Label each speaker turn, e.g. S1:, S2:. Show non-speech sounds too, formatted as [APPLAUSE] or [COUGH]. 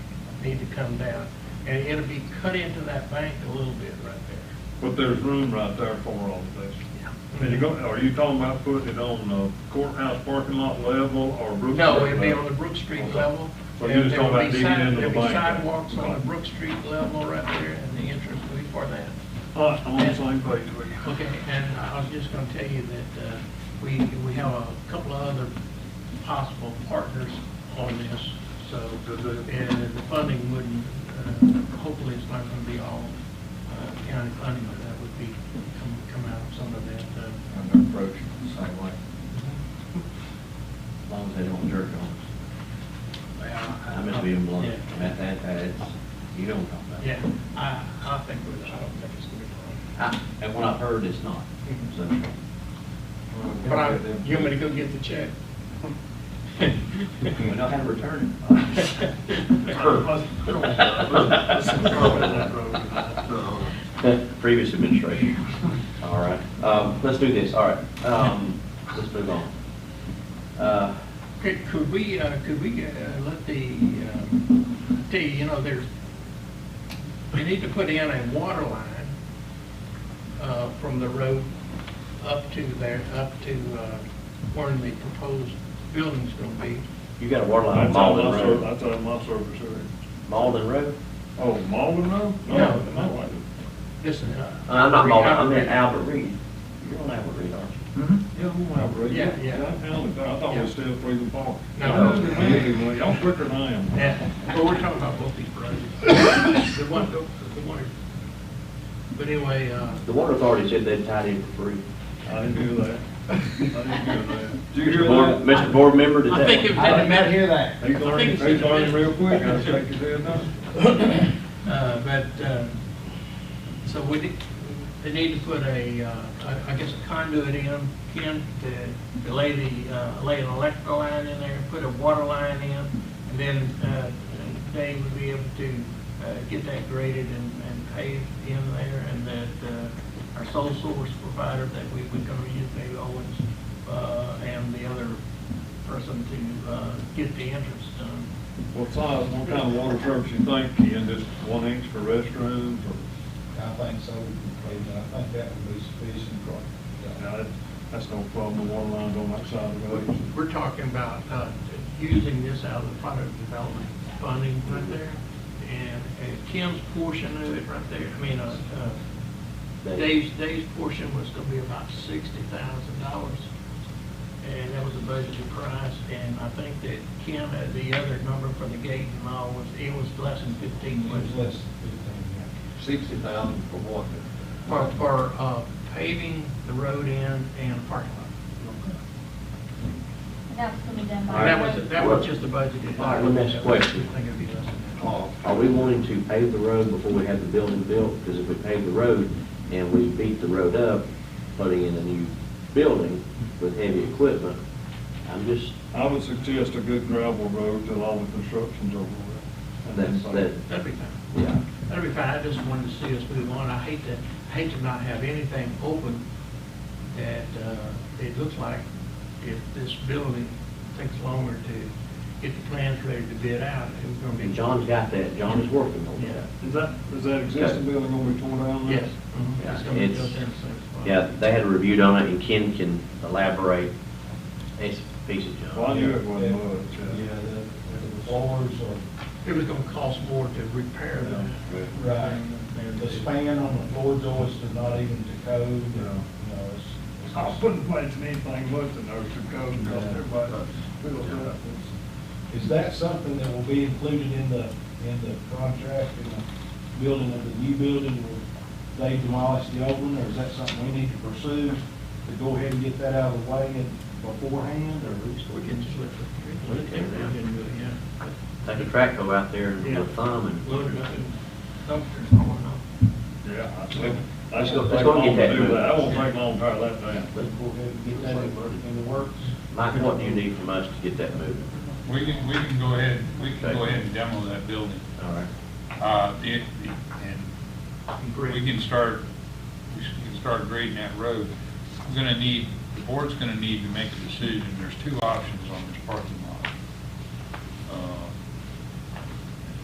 S1: need to come down. And it'll be cut into that bank a little bit right there.
S2: But there's room right there for all of this. And you go, are you talking about putting it on the courthouse parking lot level or Brook?
S1: No,
S2: Street
S1: it'd be
S2: level?
S1: on the Brook Street
S2: Okay.
S1: level.
S2: So you're just
S1: There
S2: talking
S1: will be
S2: about digging
S1: side-
S2: into the
S1: There'll
S2: bank?
S1: be sidewalks on the Brook Street level right there, and the entrance will be for that.
S2: All right, I'm on the same page with you.
S1: Okay, and I was just gonna tell you that, uh, we, we have a couple of other possible partners on this, so, and the funding wouldn't, uh, hopefully it's not gonna be all uh, county funding, but that would be, come, come out of some of that, uh,
S3: I'm gonna approach it the same way, as long as they don't jerk on us. I'm just being blunt,
S1: Yeah.
S3: and that, that, that's, you don't talk about it.
S1: Yeah, I, I think, we're- I don't think it's gonna be a
S3: I- And what I've heard, it's not, so.
S1: Mm-hmm. problem. But I, you want me to go get the [LAUGHS] check?
S3: We know how to return
S2: [LAUGHS]
S3: it. Previous administration. All right, um, let's do this, all right, um, let's move on. Uh,
S1: Could, could we, uh, could we, uh, let the, um, tell you, you know, there's, we need to put in a water line, uh, from the road up to there, up to, uh, where the proposed building's gonna be.
S3: You got a water line on
S2: That's all
S3: Malden
S2: my service,
S3: Road.
S2: that's all my service area.
S3: Malden Road?
S2: Oh, Malden Road?
S1: No.
S2: No,
S1: This is, uh.
S3: Uh, not Malden, I meant
S1: Yeah,
S3: Albert Reed. You're on Albert Reed, aren't you?
S2: Yeah, we have read.
S1: Mm-hmm. Yeah, yeah.
S2: I thought we was still Freedom Park.
S1: No.
S2: Anyway, Y'all quicker than I am.
S1: Well, we're talking about both these projects. The one, the one, but anyway, uh,
S3: The water authority said they'd tied in for free.
S2: I didn't do that. I didn't do that. Did you
S3: Mr.
S2: hear
S3: Board,
S2: that?
S3: Mr. Board member, did
S1: I
S3: that?
S1: think it was- I did not hear
S4: that.
S2: He's
S1: I
S2: learning,
S1: think
S2: he's
S1: it's-
S2: learning real quick, [LAUGHS] I think you said that.
S1: Uh, But, uh, so we, need- they need to put a, uh, I- I guess a conduit in, in to- to lay the, uh, lay an electrical line in there, put a water line in, and then uh, they would be able to uh, get that graded and and paved in there, and that uh, our sole source provider that we would go use, Dave Owens, uh, and the other person to uh, get the entrance done.
S2: What size, what kind of water service you think, Ken, just one inch for restrooms or?
S4: I think so, and I think that would be sufficient for,
S2: Now, that- That's no problem, the water line's on that side of the road.
S1: We're talking about uh, using this out of the product development funding right there, and uh, Kim's portion of it right there, I mean, uh, uh, Dave's, Dave's portion was gonna be about sixty thousand dollars, and that was the budgeted price, and I think that Kim had the other number for the gate and all was, it was less than fifteen,
S4: it
S1: was
S4: was less than
S3: Sixty thousand for water.
S1: for, for uh, paving the road in and parking lot.
S5: That was gonna be done
S3: All right.
S5: by.
S1: That was, that was just the budgeted.
S3: All right, let me ask you a question.
S1: I think it'd be less than that.
S2: Oh,
S3: Are are we wanting to pave the road before we have the building built? Because if we pave the road and we beat the road up, putting in a new building with heavy equipment, I'm just,
S2: I would suggest a good gravel road till all the construction's over with.
S3: that's, that,
S1: That'd be fine.
S3: yeah.
S1: That'd be fine, I just wanted to see us move on, I hate to, I hate to not have anything open that, uh, it looks like if this building takes longer to get the plans ready to bid out, it's gonna be.
S3: And John's got that, John is working on
S1: Yeah,
S3: that.
S2: Is that, is that existing building gonna be torn down? now?
S1: yes. mhm,
S3: Yeah,
S1: It's gonna be
S3: it's-
S1: built in the same spot.
S3: Yeah, they had a review on it, and Ken can elaborate. It's a piece of
S2: Well, I
S3: junk.
S2: knew it wasn't
S4: that.
S2: much.
S4: Yeah, the, the floors or,
S1: It was gonna cost more to repair that.
S2: Yeah.
S4: right, the span on the floor joists are not even to code, you
S2: No.
S4: know, it's. it's-
S2: I wouldn't imagine anything worse than those two codes, because everybody feels that.
S4: Is that something that will be included in the, in the contract, in the building of the new building, where they demolish the old one, or is that something we need to pursue to go ahead and get that out of the way and beforehand, or?
S1: We can just let the, let it down and do it, yeah.
S3: Take a track go out there and
S1: Yeah.
S3: with a thumb and.
S1: Load it up and dump it, I wanna know.
S2: Yeah, I think, that's
S3: Let's go-
S2: gonna
S3: let's
S2: take
S3: go
S2: long
S3: get
S2: to
S3: that
S2: do that, that
S3: moved.
S2: won't take long to tear that down.
S4: Let's go ahead and get that in in the works.
S3: Mike, what do you need from us to get that moving?
S6: We can, we can go ahead, we can go ahead and demo that building.
S3: All right.
S6: Uh, it- And we can start, we can start grading that road. We're gonna need, the board's gonna need to make a decision. There's two options on this parking Uh,